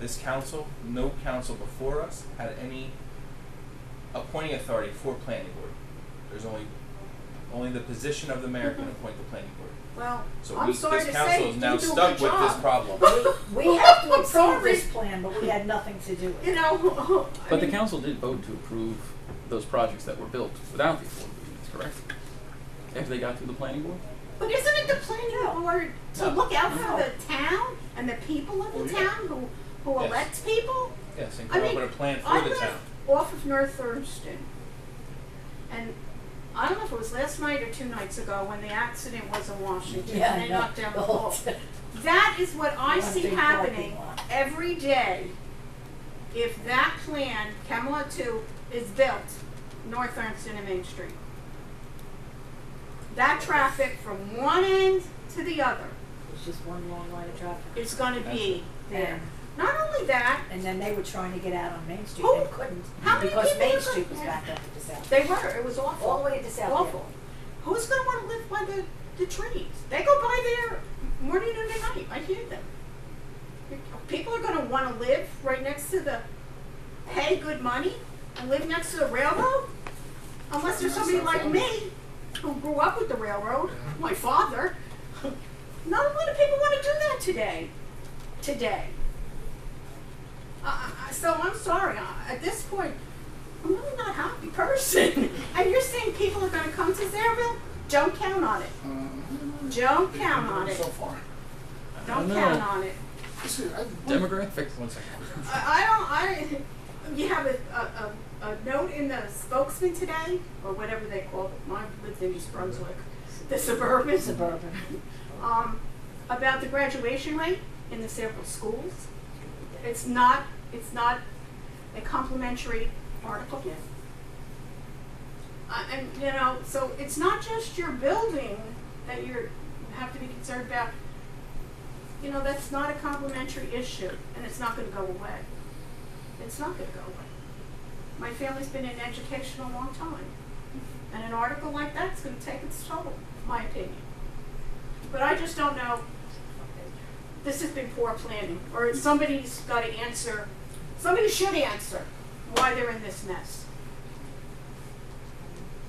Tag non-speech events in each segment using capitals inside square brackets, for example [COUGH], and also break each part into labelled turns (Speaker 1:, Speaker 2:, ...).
Speaker 1: This council, no council before us had any appointing authority for planning board. There's only, only the position of the mayor can appoint the planning board.
Speaker 2: Well,
Speaker 1: So
Speaker 2: Mm-hmm. I'm
Speaker 1: we,
Speaker 2: sorry
Speaker 1: this
Speaker 2: to
Speaker 1: council
Speaker 2: say,
Speaker 1: is
Speaker 2: you
Speaker 1: now
Speaker 2: do a
Speaker 1: stuck
Speaker 2: good
Speaker 1: with this
Speaker 2: job.
Speaker 1: problem. [LAUGHS]
Speaker 3: We
Speaker 2: [LAUGHS]
Speaker 3: have to
Speaker 2: I'm
Speaker 3: approve this
Speaker 2: sorry.
Speaker 3: plan, but we had nothing to
Speaker 2: [LAUGHS]
Speaker 3: do with
Speaker 2: You
Speaker 3: it.
Speaker 2: know, I
Speaker 4: But the
Speaker 2: mean,
Speaker 4: council did vote to approve those projects that were built without the affordable units, correct? After they got through the planning board?
Speaker 2: But isn't it the planning board to
Speaker 1: No.
Speaker 2: look out for
Speaker 3: No.
Speaker 2: the town and the people of
Speaker 1: Well,
Speaker 2: the
Speaker 1: yeah.
Speaker 2: town who, who
Speaker 1: Yes.
Speaker 2: elects people?
Speaker 1: Yes, and
Speaker 2: I
Speaker 1: come up
Speaker 2: mean,
Speaker 1: with a plan
Speaker 2: I
Speaker 1: for the town.
Speaker 2: live off of North Thurston. And I don't know if it was last night or two nights ago when the accident was in Washington
Speaker 3: Yeah,
Speaker 2: and
Speaker 3: I
Speaker 2: they
Speaker 3: know.
Speaker 2: knocked down the
Speaker 3: The whole [LAUGHS]
Speaker 2: pole.
Speaker 3: thing.
Speaker 2: That is what I
Speaker 3: One
Speaker 2: see
Speaker 3: big
Speaker 2: happening
Speaker 3: parking lot.
Speaker 2: every day. If that plan, Camelot Two, is built, North Armston and Main Street. That traffic from one end to the other
Speaker 3: It's just one long line of traffic.
Speaker 2: is gonna be there.
Speaker 3: And,
Speaker 2: Not only that,
Speaker 3: and then they were trying to get out on Main Street
Speaker 2: Who-
Speaker 3: and couldn't
Speaker 2: how many
Speaker 3: because
Speaker 2: people
Speaker 3: Main
Speaker 2: are gonna-
Speaker 3: Street was backed up to the south.
Speaker 2: they were, it was awful.
Speaker 3: All the way to South End.
Speaker 2: Awful. Who's gonna wanna live by the, the trees? They go by there morning and at night, I hear them. People are gonna wanna live right next to the, pay good money and live next to the railroad? Unless there's somebody like me, who grew up with the railroad, my father. Not a lot of people wanna do that today, today. Uh, so I'm sorry, I- at this point, I'm really not a happy person. [LAUGHS] and you're saying people are going to come to Zayreville? Don't count on it.
Speaker 5: Uh,
Speaker 2: Don't count on it.
Speaker 5: So far.
Speaker 2: Don't
Speaker 4: No.
Speaker 2: count on it.
Speaker 5: This is- I-
Speaker 4: Demographics.
Speaker 1: One second.
Speaker 4: [LAUGHS]
Speaker 2: I, I don't. I. You have a, a, a, a note in the spokesman today, or whatever they call it. Mine lived in East Brunswick, the suburban.
Speaker 3: Suburban.
Speaker 2: Um, about the graduation rate in the several schools. It's not. It's not a complimentary article. I, and you know, so it's not just your building that you're you have to be concerned about. You know, that's not a complimentary issue, and it's not going to go away. It's not going to go away. My family's been in education a long time, and an article like that's going to take its toll, in my opinion. But I just don't know. This has been poor planning, or somebody's got to answer. Somebody should answer why they're in this mess.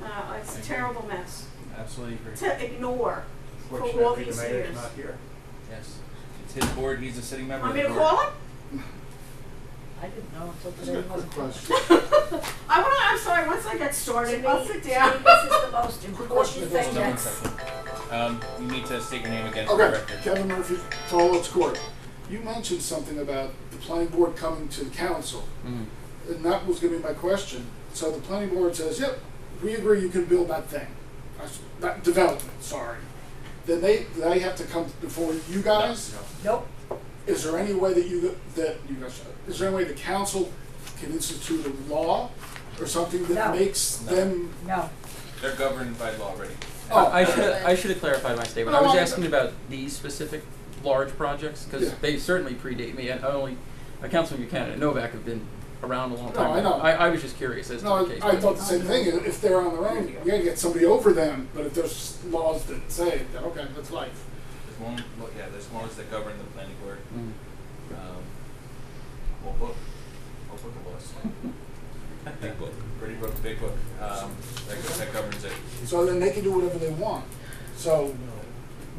Speaker 2: Uh, it's a terrible mess
Speaker 1: Absolutely agree.
Speaker 2: to ignore. For all
Speaker 6: Fortunately,
Speaker 2: these
Speaker 6: the mayor's
Speaker 2: years.
Speaker 6: not here.
Speaker 1: Yes. It's his board, he's a sitting member of
Speaker 2: Want me
Speaker 1: the
Speaker 2: to
Speaker 1: board.
Speaker 2: call him?
Speaker 3: I didn't know until
Speaker 5: Just got
Speaker 3: today.
Speaker 5: a quick question.
Speaker 2: I want to, I'm sorry, once I get
Speaker 3: To
Speaker 2: started,
Speaker 3: me-
Speaker 2: I'll sit down.
Speaker 3: to me, This is the
Speaker 4: [LAUGHS]
Speaker 3: most important
Speaker 5: question.
Speaker 3: thing
Speaker 1: Hold on one
Speaker 3: that's
Speaker 1: second. Um, you need to state your name again for the
Speaker 5: Okay,
Speaker 1: record.
Speaker 5: Kevin Murphy, Tollwood's Court. You mentioned something about the planning board coming to the council,
Speaker 4: Mm.
Speaker 1: Mm-hmm.
Speaker 5: and that was gonna be my question. So the planning board says, yep, we agree you can build that thing, I s- that development, sorry. Then they, they have to come before you guys?
Speaker 1: No,
Speaker 3: Nope,
Speaker 5: Is there any way that you, that you guys, is there any way the council can institute a law or something that
Speaker 3: No.
Speaker 5: makes
Speaker 1: No.
Speaker 5: them?
Speaker 3: no.
Speaker 1: They're governed by law already.
Speaker 5: Oh.
Speaker 4: I should I should have clarified my statement. I was asking about these specific large projects because
Speaker 5: Yeah.
Speaker 4: they certainly predate me, and I only uh, Councilman Buchanan and Novak have been around a long
Speaker 5: No,
Speaker 4: time.
Speaker 5: I know.
Speaker 4: I, I was just curious as
Speaker 5: No,
Speaker 4: to the case.
Speaker 5: I, I thought the same thing. If they're on their own, you gotta get somebody over them. But if there's laws that say, that, okay, that's life.
Speaker 1: There's one, well, yeah, there's laws that govern the planning board.
Speaker 4: Mm.
Speaker 1: Um, what book? What book it was? big book. Pretty book, big book. Um, that, go- that governs it.
Speaker 5: So then they can do whatever they want. So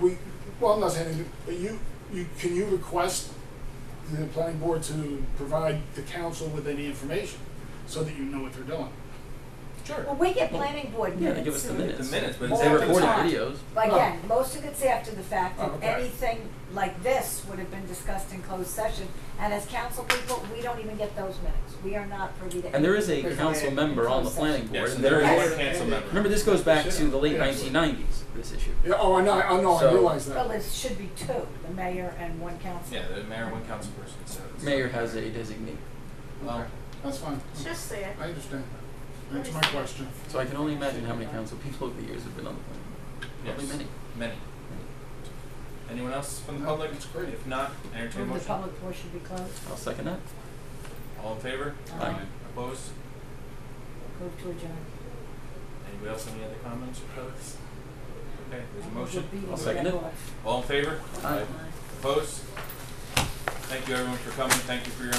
Speaker 5: we, well, I'm not saying, you- but you, you, can you request the planning board to provide the council with any information so that you know what they're doing?
Speaker 1: Sure.
Speaker 3: Well,
Speaker 4: Oh.
Speaker 3: we get planning board
Speaker 4: Yeah,
Speaker 3: minutes.
Speaker 4: they give us the
Speaker 3: and-
Speaker 1: The
Speaker 4: minutes.
Speaker 1: minutes, but
Speaker 3: All
Speaker 1: it's
Speaker 4: They
Speaker 3: the
Speaker 1: after the
Speaker 4: recorded
Speaker 3: time.
Speaker 4: videos.
Speaker 3: But again, most of it's after the fact,
Speaker 1: Oh,
Speaker 3: and
Speaker 1: okay.
Speaker 3: anything like this would have been discussed in closed session. And as council people, we don't even get those minutes. We are not privy to.
Speaker 4: And there is a
Speaker 3: anything.
Speaker 4: council member on the planning board.
Speaker 1: Yes, and
Speaker 4: and
Speaker 1: there
Speaker 3: Yes.
Speaker 1: is a council member.
Speaker 4: Remember, this goes back to the late
Speaker 5: Yeah.
Speaker 4: 1990s. This issue.
Speaker 5: Yeah, oh, I know, I know, I
Speaker 4: So-
Speaker 5: realize
Speaker 3: Well,
Speaker 5: that.
Speaker 3: it should be two, the mayor and one council.
Speaker 1: Yeah, the mayor, one council person, so. it's- Oh,
Speaker 4: Mayor has a designee,
Speaker 1: Well,
Speaker 5: That's fine.
Speaker 2: Just say it.
Speaker 5: I understand. That's my question.
Speaker 4: so I can only imagine how many council people over the years have been on the planning. board.
Speaker 1: yes,
Speaker 4: Probably many.
Speaker 1: Many. Anyone else from the
Speaker 5: No,
Speaker 1: public?
Speaker 5: it's great.
Speaker 1: If not, entertain a
Speaker 3: Move the
Speaker 1: motion.
Speaker 3: public portion should be closed. Uh,
Speaker 4: I'll second that.
Speaker 1: All in favor?
Speaker 4: Aye.
Speaker 1: Opposed?
Speaker 3: Move to adjourn.
Speaker 1: Anybody else have any other comments or comments?
Speaker 3: Uh,
Speaker 1: Okay, there's a motion.
Speaker 3: We're beating
Speaker 4: I'll second it.
Speaker 3: the record.
Speaker 1: All in favor?
Speaker 4: Aye.
Speaker 1: Opposed? Thank you everyone for coming. Thank you for your